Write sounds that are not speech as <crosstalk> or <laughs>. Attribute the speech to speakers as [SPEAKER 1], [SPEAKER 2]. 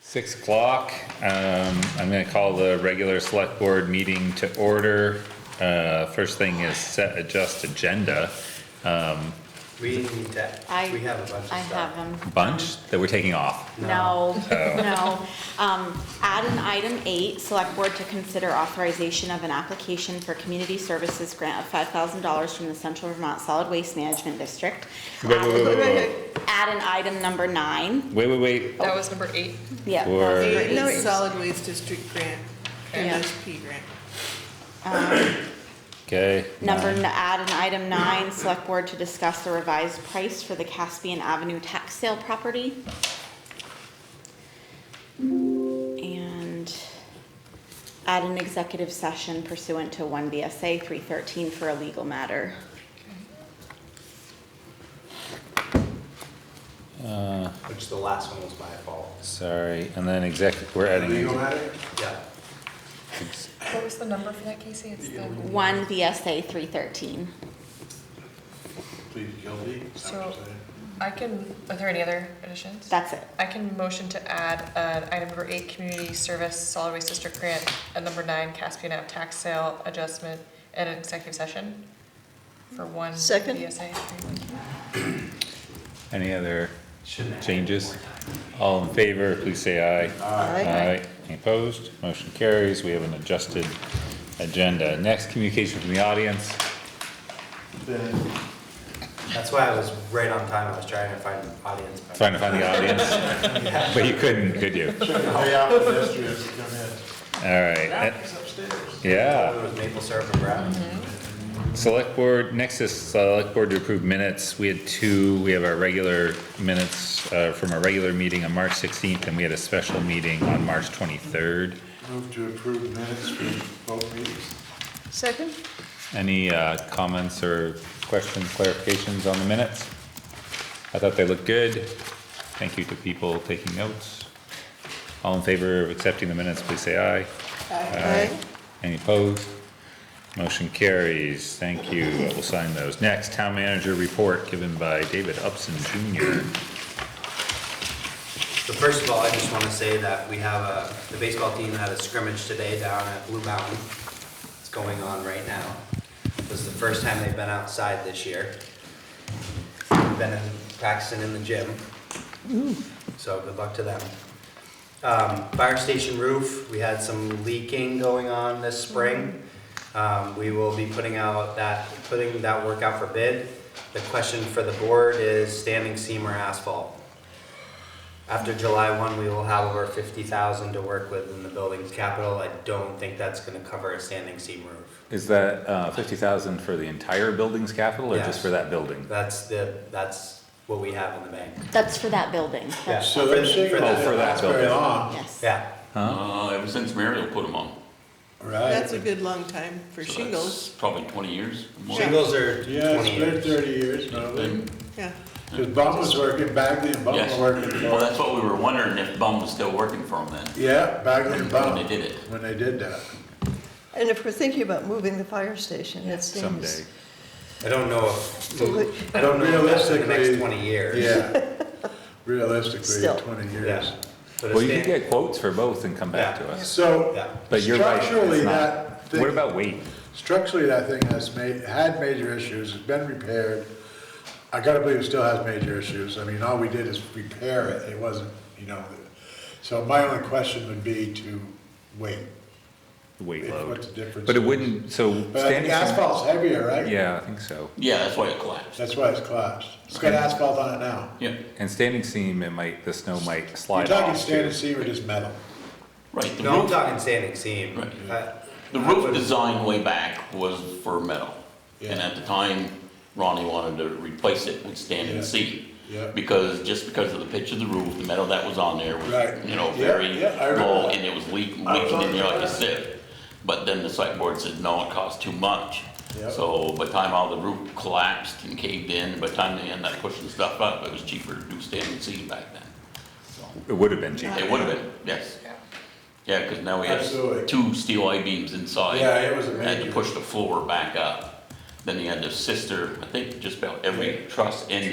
[SPEAKER 1] Six o'clock, um, I'm gonna call the regular select board meeting to order. Uh, first thing is set adjust agenda
[SPEAKER 2] We need that,
[SPEAKER 3] I.
[SPEAKER 2] we have a bunch of stuff.
[SPEAKER 3] I have them.
[SPEAKER 1] bunch that we're taking off.
[SPEAKER 3] No,
[SPEAKER 2] <laughs>
[SPEAKER 3] no. Um, add an item eight, select board to consider authorization of an application for community services grant of five thousand dollars from the Central Vermont Solid Waste Management District.
[SPEAKER 1] Wait, wait, wait, wait, wait.
[SPEAKER 3] Add an item number nine,
[SPEAKER 1] Wait, wait, wait,
[SPEAKER 4] That was number eight.
[SPEAKER 3] yeah.
[SPEAKER 1] Or-
[SPEAKER 3] that's
[SPEAKER 1] Eight,
[SPEAKER 3] great.
[SPEAKER 5] No, it's solid waste district grant,
[SPEAKER 3] Yeah.
[SPEAKER 5] MSP grant.
[SPEAKER 1] okay.
[SPEAKER 3] Number,
[SPEAKER 1] nine.
[SPEAKER 3] n- add an item nine, select board to discuss the revised price for the Caspian Avenue tax sale property. And add an executive session pursuant to one BSA three thirteen for a legal matter.
[SPEAKER 2] Which the last one was my fault.
[SPEAKER 1] Sorry, and then executive, we're adding.
[SPEAKER 2] Yeah,
[SPEAKER 1] ex-
[SPEAKER 4] What was the number for that, Casey? It's the,
[SPEAKER 3] One BSA three thirteen.
[SPEAKER 6] plead guilty.
[SPEAKER 4] so, I can, are there any other additions?
[SPEAKER 3] That's it.
[SPEAKER 4] I can motion to add, uh, item number eight, community service solid waste district grant, and number nine, Caspian Ave tax sale adjustment and an executive session for one
[SPEAKER 5] Second.
[SPEAKER 4] BSA.
[SPEAKER 1] Any other
[SPEAKER 2] shouldn't have.
[SPEAKER 1] changes? All in favor, please say aye. Aye. Any opposed? Motion carries. We have an adjusted agenda. Next, communication from the audience.
[SPEAKER 6] Then,
[SPEAKER 2] That's why I was right on time, I was trying to find an audience. member.
[SPEAKER 1] Trying to find the audience, but you couldn't, could you?
[SPEAKER 6] check the way out pedestrians to come in.
[SPEAKER 1] All right.
[SPEAKER 6] It's upstairs.
[SPEAKER 1] Yeah.
[SPEAKER 2] It was maple syrup and brown.
[SPEAKER 1] Select Board, next is Select Board to approve minutes. We had two, we have our regular minutes uh, from our regular meeting on March 16th, and we had a special meeting on March 23rd.
[SPEAKER 6] Move to approve minutes for both meetings.
[SPEAKER 5] Second?
[SPEAKER 1] Any uh, comments or questions, clarifications on the minutes? I thought they looked good. Thank you to people taking notes. All in favor of accepting the minutes, please say aye.
[SPEAKER 5] Uh, Aye.
[SPEAKER 1] Any opposed? Motion carries. Thank you. We'll sign those. Next, Town Manager Report given by David Upson Jr.
[SPEAKER 2] So first of all, I just want to say that we have a, the baseball team had a scrimmage today down at Blue Mountain. It's going on right now. This is the first time they've been outside this year. Been in- practicing in the gym. So good luck to them. Um, fire station roof, we had some leaking going on this spring. Um, we will be putting out that, putting that work out for bid. The question for the board is standing seam or asphalt? After July one, we will have over fifty thousand to work with in the building's capital. I don't think that's gonna cover a standing seam roof.
[SPEAKER 1] Is that uh, 50,000 for the entire building's capital or just
[SPEAKER 2] Yes.
[SPEAKER 1] for that building?
[SPEAKER 2] That's the, that's what we have in the bank.
[SPEAKER 3] That's for that building.
[SPEAKER 2] Yeah.
[SPEAKER 6] So they're saying
[SPEAKER 2] For the-
[SPEAKER 1] Oh, for that
[SPEAKER 6] that's very
[SPEAKER 1] building.
[SPEAKER 6] long.
[SPEAKER 3] Yes.
[SPEAKER 2] Yeah,
[SPEAKER 7] Uh, ever since Mariel put them on.
[SPEAKER 5] That's
[SPEAKER 6] Right.
[SPEAKER 5] a good long time for
[SPEAKER 7] So
[SPEAKER 5] shingles,
[SPEAKER 7] that's Probably twenty years or more.
[SPEAKER 2] shingles are
[SPEAKER 6] Yeah,
[SPEAKER 2] twenty
[SPEAKER 6] it's been
[SPEAKER 2] years.
[SPEAKER 6] thirty years probably.
[SPEAKER 7] Then-
[SPEAKER 5] yeah.
[SPEAKER 6] Cause Bum was working, Bagley and Bum
[SPEAKER 7] Yes,
[SPEAKER 6] were working.
[SPEAKER 7] well, that's what we were wondering, if Bum was still working for him then.
[SPEAKER 6] Yeah, Bagley and Bum.
[SPEAKER 7] When they did it.
[SPEAKER 6] When they did that.
[SPEAKER 8] And if we're thinking about moving the fire station, it
[SPEAKER 1] Someday.
[SPEAKER 8] seems.
[SPEAKER 2] I don't know if, I don't know if that's in the
[SPEAKER 6] Realistically.
[SPEAKER 2] next twenty years. <laughs>
[SPEAKER 6] Yeah. Realistically,
[SPEAKER 8] Still.
[SPEAKER 6] twenty years.
[SPEAKER 2] Yeah. But
[SPEAKER 1] Well,
[SPEAKER 2] it's
[SPEAKER 1] you could
[SPEAKER 2] stand-
[SPEAKER 1] get quotes for both and come back to
[SPEAKER 2] Yeah.
[SPEAKER 1] us.
[SPEAKER 6] So
[SPEAKER 2] Yeah.
[SPEAKER 1] But you're right. it's
[SPEAKER 6] structurally
[SPEAKER 1] not.
[SPEAKER 6] that. thing-
[SPEAKER 1] What about weight?
[SPEAKER 6] Structurally, that thing has made, had major issues, it's been repaired. I gotta believe it still has major issues. I mean, all we did is repair it, it wasn't, you know. So my only question would be to wait.
[SPEAKER 1] Weight
[SPEAKER 6] If-
[SPEAKER 1] load.
[SPEAKER 6] what's the difference
[SPEAKER 1] But it
[SPEAKER 6] is-
[SPEAKER 1] wouldn't, so
[SPEAKER 6] But I think
[SPEAKER 1] standing.
[SPEAKER 6] asphalt's heavier, right?
[SPEAKER 1] Yeah, I think so.
[SPEAKER 7] Yeah, that's why it collapsed.
[SPEAKER 6] That's why it's collapsed. It's got asphalt on it now.
[SPEAKER 7] Yeah,
[SPEAKER 1] And standing seam, it might, the snow might
[SPEAKER 6] You're
[SPEAKER 1] slide
[SPEAKER 6] talking
[SPEAKER 1] off.
[SPEAKER 6] stainless
[SPEAKER 1] too.
[SPEAKER 6] steel or just metal?
[SPEAKER 7] right. The
[SPEAKER 2] No, I'm
[SPEAKER 7] roof,
[SPEAKER 2] talking standing seam.
[SPEAKER 7] Right.
[SPEAKER 2] Uh,
[SPEAKER 7] the
[SPEAKER 2] I would-
[SPEAKER 7] roof design way back was for metal. And
[SPEAKER 6] Yeah.
[SPEAKER 7] at the time, Ronnie wanted to replace it with standing
[SPEAKER 6] Yeah.
[SPEAKER 7] seam.
[SPEAKER 6] Yeah.
[SPEAKER 7] Because, just because of the pitch of the roof, the metal that was on there
[SPEAKER 6] Right.
[SPEAKER 7] was, you know,
[SPEAKER 6] Yeah,
[SPEAKER 7] very
[SPEAKER 6] yeah, I remember
[SPEAKER 7] low
[SPEAKER 6] that.
[SPEAKER 7] and it was leak-
[SPEAKER 6] I was
[SPEAKER 7] leaking
[SPEAKER 6] on
[SPEAKER 7] in there
[SPEAKER 6] the-
[SPEAKER 7] like a sieve. But then the site board said, no, it costs too much.
[SPEAKER 6] Yeah.
[SPEAKER 7] So by the time all the roof collapsed and caved in, by the time they ended up pushing stuff up, it was cheaper to do standing seam back then. So
[SPEAKER 1] It would have been cheaper.
[SPEAKER 7] It would have been, yes. Yeah, because now we
[SPEAKER 6] Absolutely.
[SPEAKER 7] have two steel I-beams inside.
[SPEAKER 6] Yeah, it was
[SPEAKER 7] Had
[SPEAKER 6] amazing.
[SPEAKER 7] to push the floor back up. Then you had the sister, I think just about every truss end